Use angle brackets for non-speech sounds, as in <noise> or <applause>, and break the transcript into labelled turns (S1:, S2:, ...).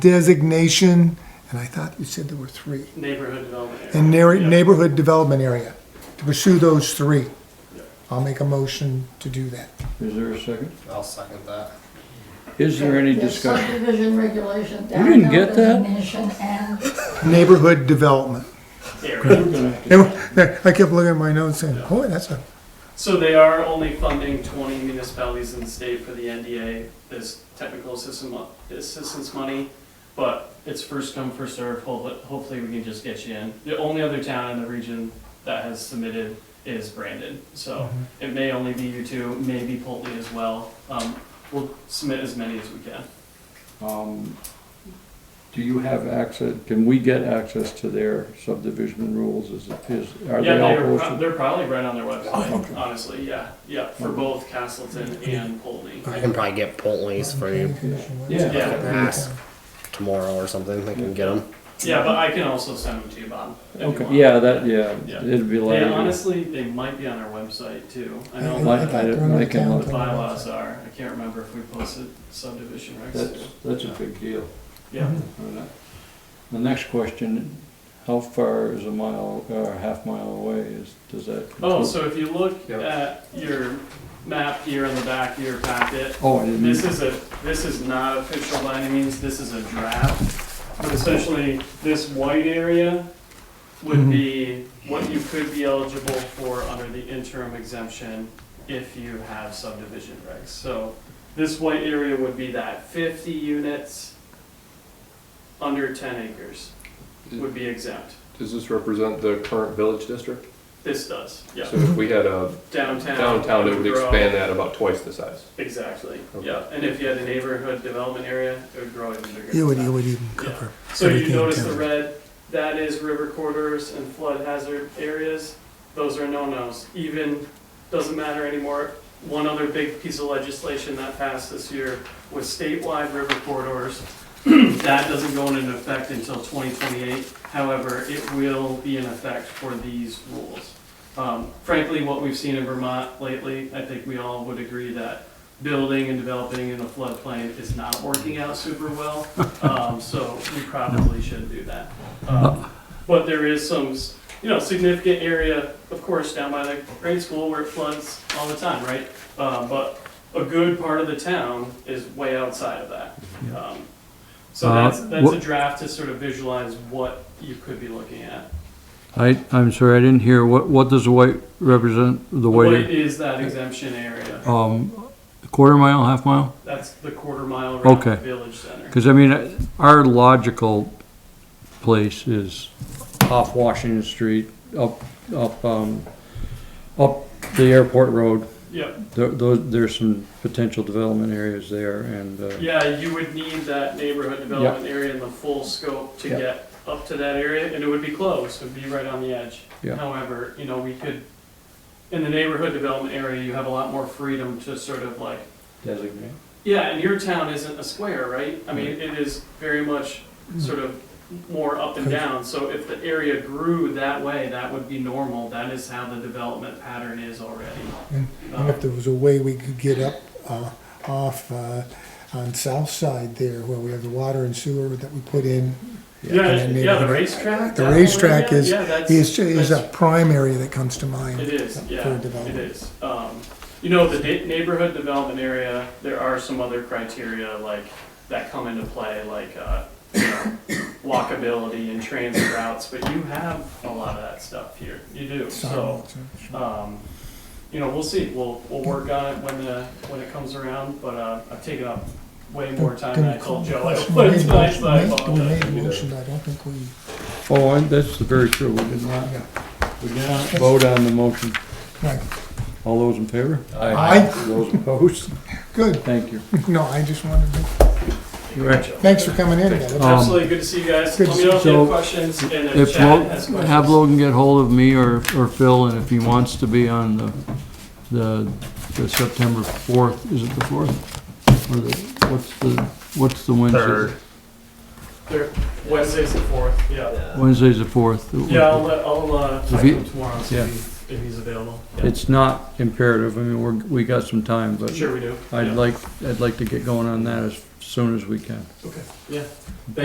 S1: designation, and I thought you said there were three,
S2: neighborhood development area.
S1: and neigh-
S2: Yeah.
S1: neighborhood development area, to pursue those three. I'll make a motion to do that.
S3: Is there a second?
S4: I'll second that.
S3: Is there any
S5: The
S3: discussion?
S5: Subdivision regulation,
S3: didn't
S5: downhill
S3: get that?
S5: designation, and
S1: Neighborhood development.
S2: Area.
S1: <laughs> And I kept looking at my notes saying, boy, that's a,
S2: So they are only funding twenty municipalities in the state for the NDA, this technical assistance, mo- assistance money. But it's first come, first served, Ho- hopefully we can just get you in. The only other town in the region that has submitted is Brandon, so it may only be you two, maybe Pulte as well. Um, we'll submit as many as we can.
S3: Um, Do you have access, can we get access to their subdivision rules? Is, it- is, are
S2: Yeah,
S3: they all
S2: they're, pro-
S3: posted?
S2: they're probably right on their website,
S3: Okay.
S2: honestly, yeah, yeah, for both Castleton and Pulte.
S4: I can probably get Poltley's for you
S3: Yeah.
S2: Yeah.
S4: ask tomorrow or something. I can get them.
S2: Yeah, but I can also send them to you, Bob. if you
S3: Okay,
S2: want.
S3: yeah, that, yeah,
S2: Yeah.
S3: it'd be
S2: They
S3: like,
S2: honestly, they might be on our website too. I
S1: I-
S2: know
S1: I
S2: what
S3: like-
S1: thought
S3: I-
S1: they were on
S3: I
S1: the
S3: can
S1: town
S2: the
S1: thing.
S2: bylaws are. I can't remember if we posted subdivision regs.
S3: that's, that's a big deal.
S2: Yeah,
S3: All right. The next question, how far is a mile, or a half mile away is, does that?
S2: oh, so if you look
S4: Yeah.
S2: at your map here in the back of your packet,
S3: Oh, I didn't,
S2: This is a, this is not official by any means, this is a draft. But essentially, this white area would
S6: Mm-hmm.
S2: be what you could be eligible for under the interim exemption if you have subdivision regs. So this white area would be that fifty units under ten acres would be exempt.
S6: Does this represent the current village district?
S2: This does, yeah.
S6: So if we had a
S2: Downtown.
S6: downtown, it would
S2: grow.
S6: expand that about twice the size.
S2: Exactly,
S6: Okay.
S2: yeah. And if you had a neighborhood development area, it would grow even bigger.
S1: It would,
S2: than
S1: it
S2: that.
S1: would even cover.
S2: So you
S1: everything in
S2: notice the
S1: town.
S2: red, that is river corridors and flood hazard areas. Those are no-nos. Even, doesn't matter anymore. One other big piece of legislation that passed this year was statewide river corridors. <clears throat> That doesn't go into effect until 2028. However, it will be in effect for these rules. Um, Frankly, what we've seen in Vermont lately, I think we all would agree that building and developing in a floodplain is not working out super
S3: <laughs>
S2: well. Um, so we probably should do that.
S3: Uh.
S2: Um, but there is some, you know, significant area, of course, down by the grade school where it floods all the time, right? Uh, but a good part of the town is way outside of that. Um, so
S3: Uh,
S2: that's, that's a
S3: what-
S2: draft to sort of visualize what you could be looking at.
S3: I, I'm sorry, I didn't hear, what, what does the white represent, the
S2: What
S3: white,
S2: is that exemption area?
S3: um, quarter mile, half mile?
S2: That's the quarter mile around the
S3: Okay.
S2: village center.
S3: Because I mean, our logical place is off Washington Street, up, up, um, up the airport road.
S2: Yep.
S3: There, those, there's some potential development areas there and, uh,
S2: Yeah, you would need that neighborhood development area in the full scope to
S3: Yeah.
S2: get up to that area, and it would be close, it would be right on the edge.
S3: Yeah.
S2: However, you know, we could, in the neighborhood development area, you have a lot more freedom to sort of like,
S3: designate.
S2: yeah, and your town isn't a square, right? I mean, it is very much sort of more up and down, so if the area grew that way, that would be normal, that is how the development pattern is already.
S1: <laughs> And
S2: Um,
S1: If there was a way we could get up, uh, off, uh, on south side there, where we have the water and sewer that we put in,
S2: Yeah,
S1: And then
S2: yeah, the
S1: neighborhood-
S2: racetrack.
S1: the
S2: that whole
S1: racetrack
S2: area,
S1: is-
S2: yeah, that's-
S1: is, is a
S2: that's-
S1: prime area that comes to mind.
S2: It is,
S1: for
S2: yeah, it
S1: development.
S2: is. Um, You know, the na- neighborhood development area, there are some other criteria like, that come into play, like, uh, you know, <coughs> walkability and transit routes, but you have a lot of that stuff here. You do, so,
S1: Sidewalks, uh, sure.
S2: um, you know, we'll see. We'll, we'll work on it when the, when it comes around, but, uh, I've taken up way more time than I told Joe I would tonight, so I
S1: We
S2: apologize.
S1: made a motion, I don't think we,
S3: Oh, and that's very true. We did not,
S1: yeah,
S3: we did not vote on the motion.
S1: right.
S3: All those in favor?
S1: Aye.
S3: Those opposed?
S1: Good, <laughs>
S3: Thank you.
S1: no, I just wanted to,
S3: Right.
S1: thanks for coming in. Ed.
S3: Um,
S2: Absolutely, good to see you guys.
S1: good
S2: Let
S1: to
S2: me know if you
S3: so
S2: have questions and if
S3: If,
S2: Chad
S3: Lo-
S2: has
S3: have
S2: questions.
S3: Logan get hold of me or, or Phil, and if he wants to be on the, the, the September fourth, is it the fourth? Or the, what's the, what's the Wednesday?
S4: Third.
S2: They're- Wednesday's the fourth, yeah.
S3: Wednesday's the fourth.
S2: Yeah, I'll, let- I'll, uh,
S3: If
S2: talk to
S3: you-
S2: him tomorrow, and see
S3: yeah.
S2: if if he's available. Yeah.
S3: It's not imperative, I mean, we're, we got some time, but
S2: Sure we do.
S3: I'd
S2: Yeah.
S3: like, I'd like to get going on that as soon as we can.
S2: Okay, yeah.